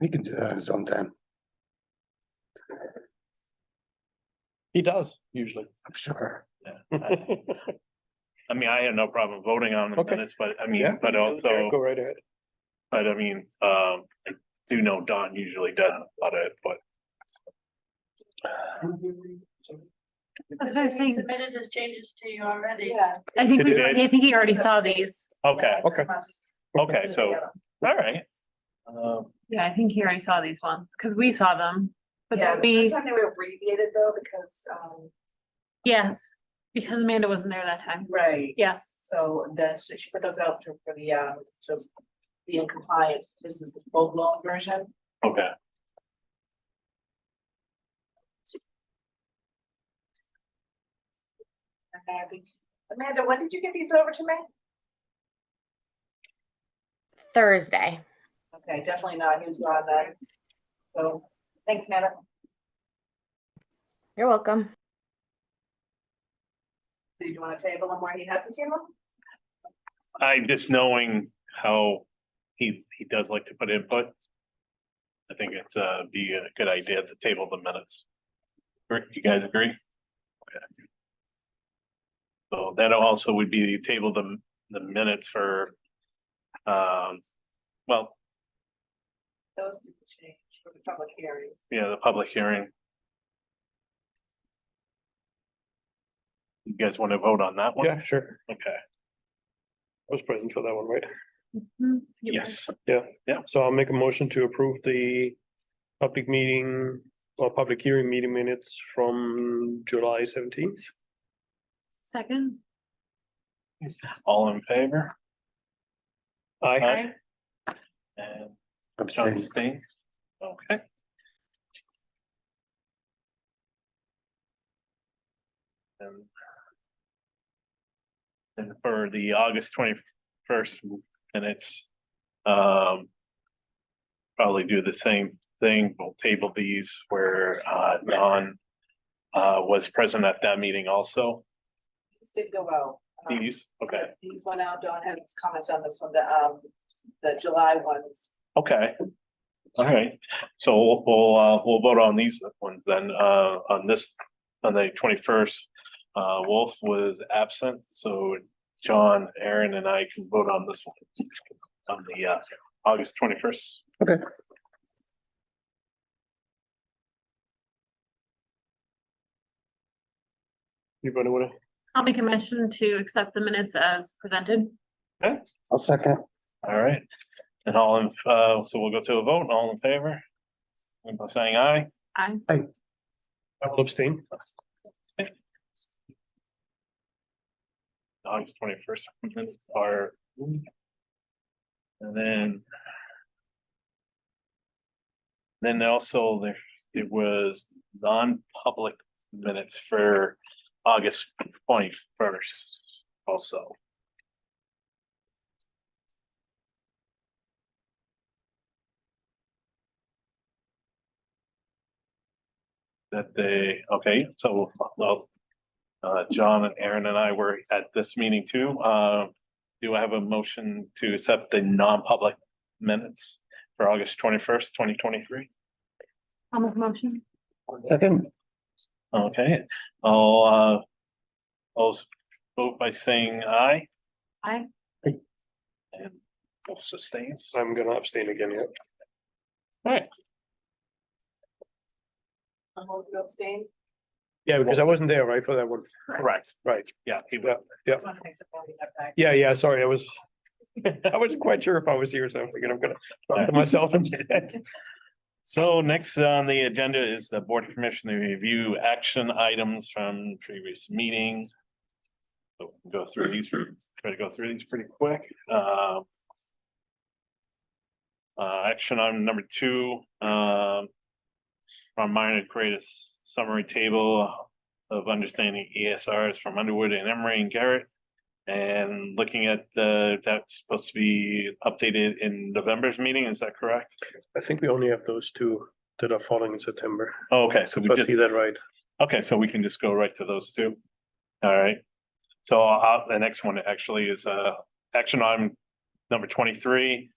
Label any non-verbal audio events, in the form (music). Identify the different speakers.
Speaker 1: He can do that sometime,
Speaker 2: He does usually.
Speaker 1: I'm sure.
Speaker 2: I
Speaker 3: I mean, I had no problem voting on the
Speaker 2: Okay.
Speaker 3: minutes, but I mean, but also,
Speaker 2: Go right ahead.
Speaker 3: but I mean, um, I do know Don usually does about it, but.
Speaker 4: I was gonna say-
Speaker 5: Submitted his changes to you already.
Speaker 4: Yeah.
Speaker 5: I
Speaker 4: I
Speaker 5: think
Speaker 4: think,
Speaker 3: we- Today.
Speaker 4: I think he already saw these.
Speaker 3: Okay,
Speaker 2: Okay.
Speaker 3: okay, so, all right. Um,
Speaker 4: Yeah, I think he already saw these ones, because we saw them, but
Speaker 6: Yeah, the
Speaker 4: that be,
Speaker 6: first time they were abbreviated though, because, um,
Speaker 4: yes, because Amanda wasn't there that time,
Speaker 6: right,
Speaker 4: yes.
Speaker 6: so the, so she put those out for, for the, um, to be in compliance, this is the full blown version.
Speaker 3: okay,
Speaker 6: Okay, I think, Amanda, when did you get these over to me?
Speaker 7: Thursday.
Speaker 6: Okay, definitely not, he was not on that. So, thanks, Amanda.
Speaker 7: You're welcome.
Speaker 6: Do you want to table him where he hasn't seen them?
Speaker 3: I just knowing how he, he does like to put input. I think it's, uh, be a good idea to table the minutes. Gr- You guys agree? Okay. So that also would be table the, the minutes for, um, well,
Speaker 6: Those didn't change for the public hearing.
Speaker 3: yeah, the public hearing. You guys want to vote on that one?
Speaker 2: Yeah, sure.
Speaker 3: Okay,
Speaker 2: I was present for that one, right?
Speaker 4: Mhm. You were.
Speaker 3: yes,
Speaker 2: So I'll make a motion to approve the public meeting or public hearing meeting minutes from July seventeenth.
Speaker 4: Second,
Speaker 3: all in favor?
Speaker 2: I,
Speaker 3: And John
Speaker 1: Abstain.
Speaker 3: abstains? Okay. And Um, and for the August twenty-first minutes, um, probably do the same thing. We'll table these where, uh, Don uh, was present at that meeting also.
Speaker 6: These did go out. um,
Speaker 3: These, okay,
Speaker 6: These went out, Don had his comments on this one, the, um, the July ones.
Speaker 3: okay. All right, so we'll, we'll, uh, we'll vote on these ones then, uh, on this, on the twenty-first. Uh, Wolf was absent, so John, Aaron and I can vote on this one. On the, uh, August twenty-first.
Speaker 1: Okay.
Speaker 2: anybody wanna,
Speaker 4: I'll make a motion to accept the minutes as presented.
Speaker 3: Okay,
Speaker 1: I'll second.
Speaker 3: all right. And all in, uh, so we'll go to a vote, all in favor? By Saying aye.
Speaker 4: I,
Speaker 2: I will abstain.
Speaker 3: August twenty-first minutes are. And then. Then also there, it was non-public minutes for August twenty-first also. That they, okay, so, well, uh, John and Aaron and I were at this meeting too. Uh, do I have a motion to accept the non-public minutes for August twenty-first, twenty twenty-three?
Speaker 4: I'll make a motion.
Speaker 1: Second,
Speaker 3: Okay, I'll, uh, I'll s- vote by saying aye
Speaker 4: I,
Speaker 3: and both sustains.
Speaker 2: I'm gonna abstain again, yeah.
Speaker 6: I'm going to abstain.
Speaker 2: Yeah, because I wasn't there, right, for that one.
Speaker 3: Correct,
Speaker 2: Right.
Speaker 3: yeah, he will.
Speaker 6: Just wanna make sure that we have that.
Speaker 2: Yeah, yeah, sorry, I was, I wasn't quite sure if I was here, so I'm thinking I'm gonna talk to myself instead. (laughs)
Speaker 3: So next on the agenda is the board commission to review action items from previous meetings. So we'll Go through these, try to go through these pretty quick. Uh, uh, action item number two, um. From mine, to create a s- summary table of understanding ESRs from Underwood and Emery and Garrett. And looking at the, that's supposed to be updated in November's meeting, is that correct?
Speaker 2: I think we only have those two that are falling in September,
Speaker 3: Oh, Okay, so we
Speaker 2: if I
Speaker 3: just.
Speaker 2: see that right.
Speaker 3: Okay, so we can just go right to those two. All right. So uh, the next one actually is uh action item number twenty-three.